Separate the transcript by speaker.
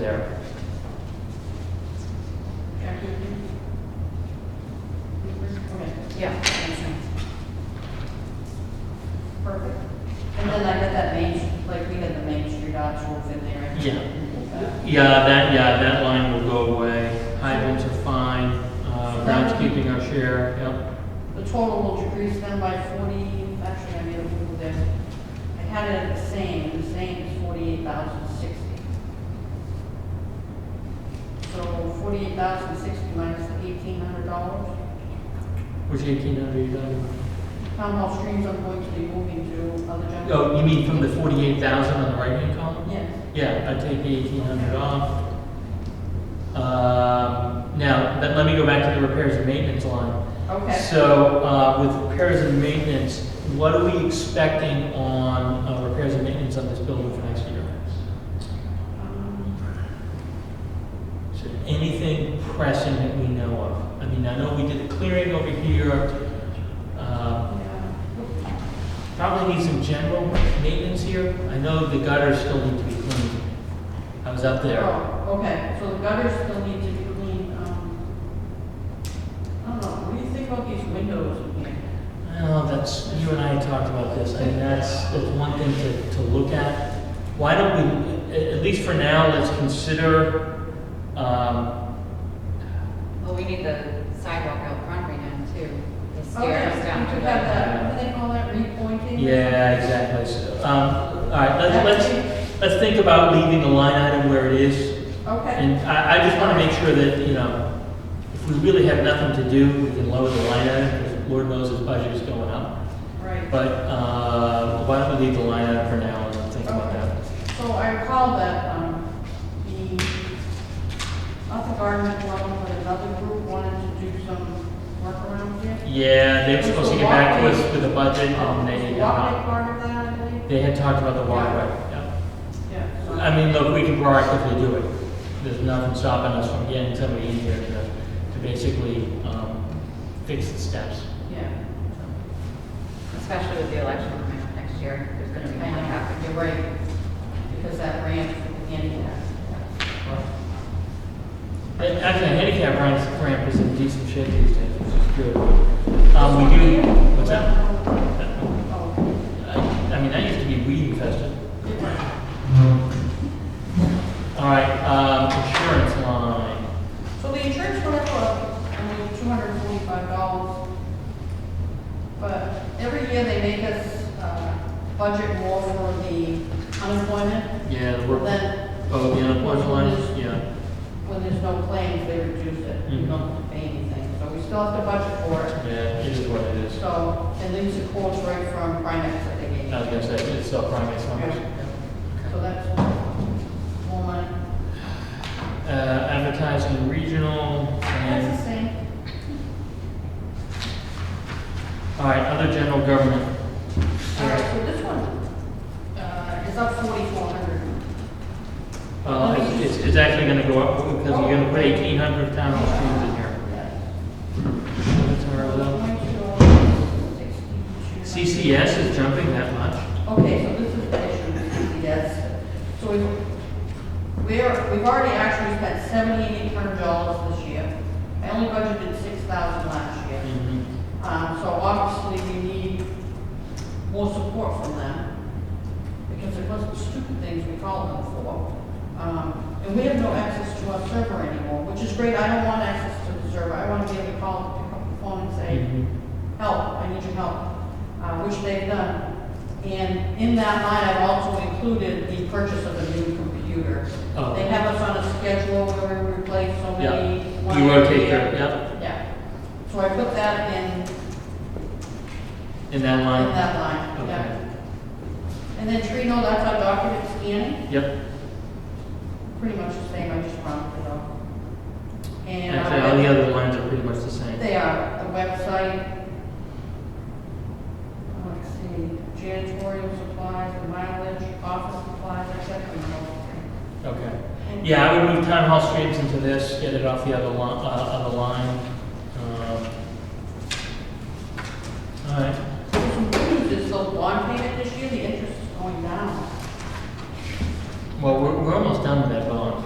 Speaker 1: there.
Speaker 2: Okay,
Speaker 3: Yeah.
Speaker 2: makes sense.
Speaker 3: Perfect. And then I got that main, like, we had the Main Street options in there. Uh,
Speaker 1: Yeah.
Speaker 3: So
Speaker 1: Yeah, that, yeah, that line will go away. Hydrants are fine, uh, groundskeeping our share, yep.
Speaker 3: The total will decrease down by forty, actually, I made a little there. I had it at the same, the same is forty-eight thousand sixty. So forty-eight thousand sixty minus the eighteen hundred dollars.
Speaker 1: Which eighteen hundred you talking about?
Speaker 3: Town hall streams I'm going to be moving to other general.
Speaker 1: Oh, you mean from the forty-eight thousand on the right-hand column?
Speaker 3: Yes.
Speaker 1: Yeah, I take the eighteen hundred off. Um, now, let, let me go back to the repairs and maintenance line.
Speaker 3: Okay.
Speaker 1: So, uh, with repairs and maintenance, what are we expecting on, uh, repairs and maintenance on this building for next year?
Speaker 3: Um,
Speaker 1: Is there anything pressing that we know of? I mean, I know we did the clearing over here, uh,
Speaker 3: yeah.
Speaker 1: probably need some general maintenance here. I know the gutters still need to be cleaned. I was up there.
Speaker 3: Oh, okay, so the gutters still need to be cleaned, um, I don't know, what do you think about these windows in here?
Speaker 1: Well, that's, you and I talked about this, I mean, that's, that's one thing to, to look at. Why don't we, at, at least for now, let's consider, um,
Speaker 2: Well, we need the sidewalk out front redone too, the
Speaker 3: Okay,
Speaker 2: stairs
Speaker 3: so
Speaker 2: down
Speaker 3: you
Speaker 2: to
Speaker 3: could have
Speaker 2: the.
Speaker 3: that, what do they call that, repointing?
Speaker 1: yeah, exactly. So, Um, all right, let's, let's, let's think about leaving the line item where it is.
Speaker 3: Okay,
Speaker 1: And I, I just want to make sure that, you know, if we really have nothing to do, we can lower the line item, because Lord knows his budget is going up.
Speaker 3: right.
Speaker 1: But, uh, why don't we leave the line item for now and think about that?
Speaker 3: So I recall that, um, the, not the garden club, but another group wanted to do some work around here.
Speaker 1: Yeah, they were
Speaker 3: Was
Speaker 1: supposed to
Speaker 3: the
Speaker 1: get back to
Speaker 3: walkway-
Speaker 1: us with a budget, and they had
Speaker 3: Walkway
Speaker 1: not.
Speaker 3: part of that, I believe?
Speaker 1: They had talked about the walkway, yeah.
Speaker 3: Yeah. so-
Speaker 1: I mean, look, we can proactively do it. There's nothing stopping us from getting somebody in here to, to basically, um, fix the steps.
Speaker 3: Yeah.
Speaker 2: Especially with the election coming up next year, there's gonna be
Speaker 3: I
Speaker 2: more
Speaker 3: know,
Speaker 2: happening.
Speaker 3: you're right, because that ramp beginning there.
Speaker 1: And Actually, handicap ramp, ramp is in decent shape these days, which is good. Um, we do, what's that? I,
Speaker 3: Oh,
Speaker 1: I mean, that used to be weed infested. All right, um, insurance line.
Speaker 3: So the insurance went up, uh, I mean, two hundred and forty-five dollars. But every year they make us, uh, budget more for the unemployment,
Speaker 1: Yeah, the work,
Speaker 3: then
Speaker 1: oh, the unemployment line, is- yeah. Mm-hmm.
Speaker 3: when there's no claims, they reduce it. You don't have to pay anything, so we still have to budget for
Speaker 1: Yeah,
Speaker 3: it.
Speaker 1: it is what it is.
Speaker 3: So, and these are quotes right from Primex that they gave.
Speaker 1: I was gonna say, it's still primary numbers.
Speaker 3: So that's more money.
Speaker 1: Uh, advertising regional
Speaker 3: That's
Speaker 1: and,
Speaker 3: the same.
Speaker 1: all right, other general government.
Speaker 3: All right, so this one uh, is up 4,400.
Speaker 1: Uh, it's- it's, it's actually gonna go up because you're gonna put eighteen hundred town hall streams in here. That's our level. CCS is jumping that much?
Speaker 3: Okay, so this is the issue with CCS. So we've, we're, we've already actually spent 7,800 dollars this year. I only budgeted 6,000 last year. Um, so obviously we need more support from them because it wasn't stupid things we called them for. Um, and we have no access to our server anymore, which is great. I don't want access to the server. I want to be able to call, pick up the phone and say,
Speaker 1: Mhm.
Speaker 3: help, I need your help, uh, which they've done. And in that line, I've also included the purchase of a new computer.
Speaker 1: Oh.
Speaker 3: They have us on a schedule where we replace so many.
Speaker 1: Yeah,
Speaker 3: one
Speaker 1: you
Speaker 3: every
Speaker 1: rotate
Speaker 3: year.
Speaker 1: your, yeah,
Speaker 3: Yeah, so I put that in, in
Speaker 1: in that line,
Speaker 3: that line,
Speaker 1: okay.
Speaker 3: yeah. And then Trino, that's our document scanning,
Speaker 1: Yep,
Speaker 3: pretty much the same, I just rounded it up. And
Speaker 1: actually, all the
Speaker 3: uh,
Speaker 1: other lines are pretty much the same.
Speaker 3: they are, the website, let's see, janitorial supplies, the mileage, office supplies, et cetera. and all that.
Speaker 1: Okay. Yeah, I would move town hall streams into this, get it off the other line, uh, other line. Um, All right,
Speaker 3: So some good news is the bond payment this year, the interest is going down.
Speaker 1: well, we're, we're almost done with that bond.